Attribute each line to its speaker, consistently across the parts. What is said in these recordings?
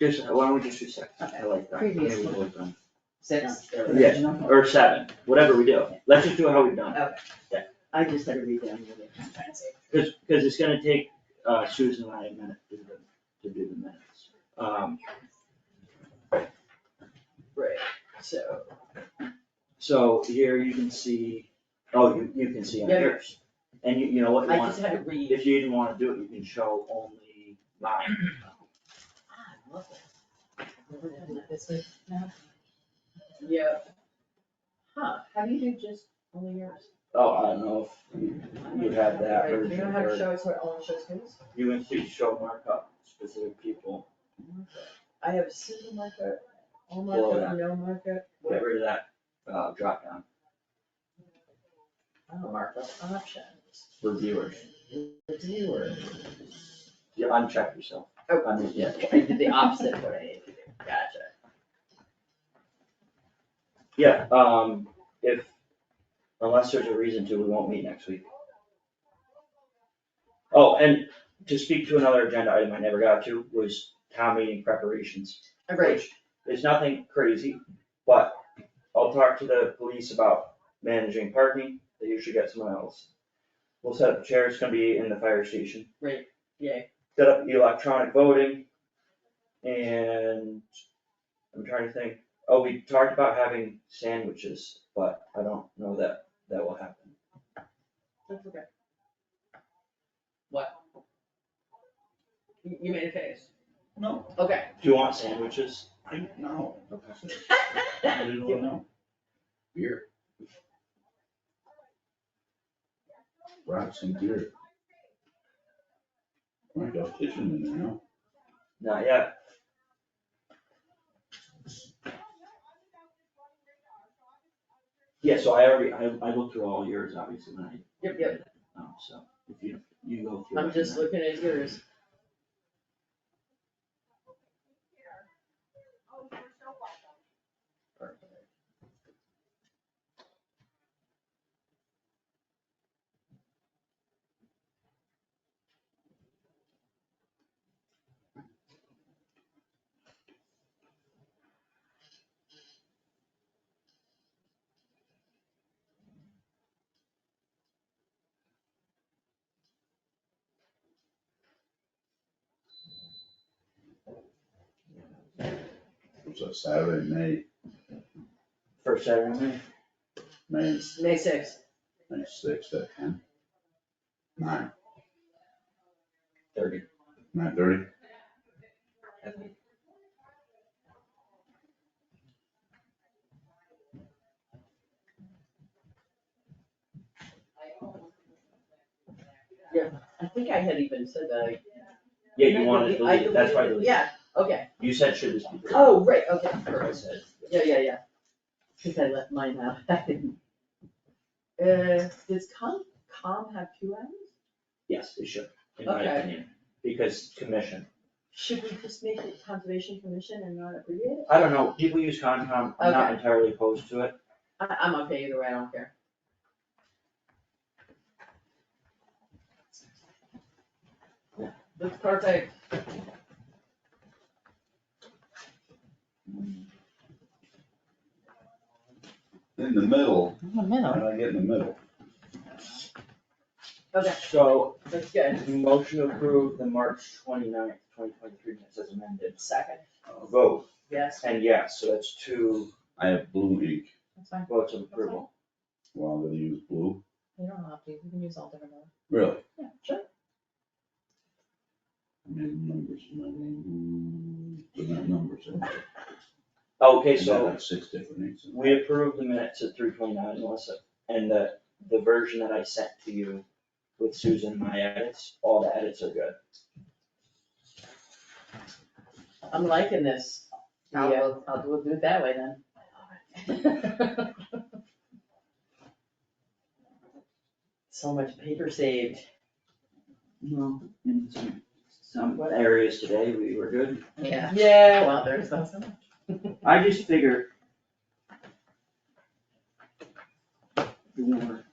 Speaker 1: Just, why don't we just do six? I like that.
Speaker 2: Previous
Speaker 1: Maybe we'll done.
Speaker 2: Six, the
Speaker 1: Yeah.
Speaker 2: original.
Speaker 1: Or seven, whatever we do. Let's just do it how we've done.
Speaker 2: I just had to read down the other. I'm trying to say.
Speaker 1: Cause, 'cause it's gonna take uh, Susan and I a minute to do the, to do the minutes. Um,
Speaker 2: Right, so,
Speaker 1: so here you can see, oh, you, you can see on
Speaker 2: Yeah.
Speaker 1: yours. And you, you know what you
Speaker 2: I
Speaker 1: want,
Speaker 2: just had to read.
Speaker 1: if you didn't wanna do it, you can show only mine.
Speaker 2: Ah, I love that. Never done that. Yeah. Huh, how do you do just only yours?
Speaker 1: Oh, I don't know if you have that
Speaker 2: Do you
Speaker 1: version
Speaker 2: know how to
Speaker 1: or
Speaker 2: show us what only shows who's?
Speaker 1: you can see show markup specific people,
Speaker 2: I have a single markup, all
Speaker 1: Well,
Speaker 2: markup, no markup, whatever,
Speaker 1: whatever that, uh, down
Speaker 2: I don't markup oh, options,
Speaker 1: for viewers.
Speaker 2: viewers.
Speaker 1: You uncheck yourself.
Speaker 2: Oh.
Speaker 1: I mean, yeah.
Speaker 2: I did the opposite of what I needed to do, gotcha.
Speaker 1: Yeah, um, if, unless there's a reason to, we won't meet next week. Oh, and to speak to another agenda item I never got to was town meeting preparations.
Speaker 2: Right,
Speaker 1: which is nothing crazy, but I'll talk to the police about managing parking, they usually get someone else. We'll set up chairs, it's gonna be in the fire station.
Speaker 2: Right, yay.
Speaker 1: Set up electronic voting, and I'm trying to think, oh, we talked about having sandwiches, but I don't know that that will happen.
Speaker 2: that's okay. What? You, you made a face,
Speaker 3: No,
Speaker 2: okay.
Speaker 1: Do you want sandwiches?
Speaker 3: I, no,
Speaker 1: Okay.
Speaker 3: I didn't wanna know. Beer. Rocks and beer. I got kitchen in there now.
Speaker 1: Not yet. Yeah, so I already, I, I looked through all yours, obviously, when I.
Speaker 2: Yep, yep,
Speaker 1: Um, so if you, you go through.
Speaker 2: I'm
Speaker 1: it and
Speaker 2: just
Speaker 1: then-
Speaker 2: looking at yours,
Speaker 3: It was a Saturday, May,
Speaker 1: First Saturday,
Speaker 3: May,
Speaker 2: May sixth,
Speaker 3: May sixth at ten. Nine,
Speaker 1: thirty.
Speaker 3: nine thirty.
Speaker 2: I think I had even said that. I-
Speaker 1: Yeah, you wanted to
Speaker 2: I
Speaker 1: delete it, that's why I
Speaker 2: deleted it.
Speaker 1: deleted it.
Speaker 2: Yeah, okay,
Speaker 1: You said should this be.
Speaker 2: oh, right, okay,
Speaker 1: I
Speaker 2: perfect.
Speaker 1: said.
Speaker 2: Yeah, yeah, yeah. Cause I left mine out, I didn't. Uh, does com, com have two M's?
Speaker 1: Yes, it should, in my
Speaker 2: Okay.
Speaker 1: opinion, because commission.
Speaker 2: Should we just make it conservation commission and not abbreviate it?
Speaker 1: I don't know, people use Concom, I'm not
Speaker 2: Okay.
Speaker 1: entirely opposed to it.
Speaker 2: I, I'm okay either way, I don't care. That's perfect.
Speaker 3: In the middle,
Speaker 2: In the
Speaker 3: how
Speaker 2: middle.
Speaker 3: did I get in the middle?
Speaker 2: Okay,
Speaker 1: So,
Speaker 2: that's good.
Speaker 1: motion to approve the March twenty-ninth, twenty twenty-three minutes as amended.
Speaker 2: Second,
Speaker 1: Uh, Vote,
Speaker 2: yes,
Speaker 1: and yes, so that's two
Speaker 3: I have blue ink.
Speaker 4: That's fine,
Speaker 1: votes of approval.
Speaker 3: Well, I'm gonna use blue.
Speaker 4: you don't have to, you can use all different ones.
Speaker 3: Really?
Speaker 4: Yeah,
Speaker 2: sure.
Speaker 3: I mean, numbers, I mean, mm, but not numbers. I mean,
Speaker 1: Okay,
Speaker 3: I got
Speaker 1: so
Speaker 3: like Six different inks. in there.
Speaker 1: We approved the minutes at three twenty-nine, Melissa, and the, the version that I sent to you with Susan, and my edits, all the edits are good.
Speaker 2: I'm liking this.
Speaker 4: I'll,
Speaker 2: Yeah.
Speaker 4: we'll- I'll, we'll do it that way then.
Speaker 2: So much paper saved.
Speaker 1: No. In some, some areas today, we were good.
Speaker 4: Yeah.
Speaker 2: Yeah,
Speaker 4: Well, there's not so much.
Speaker 1: I just figure. The warrant.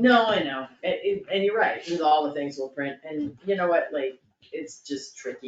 Speaker 2: No, I know, and, and- and you're right, with all the things we'll print, and you know what, like, it's just tricky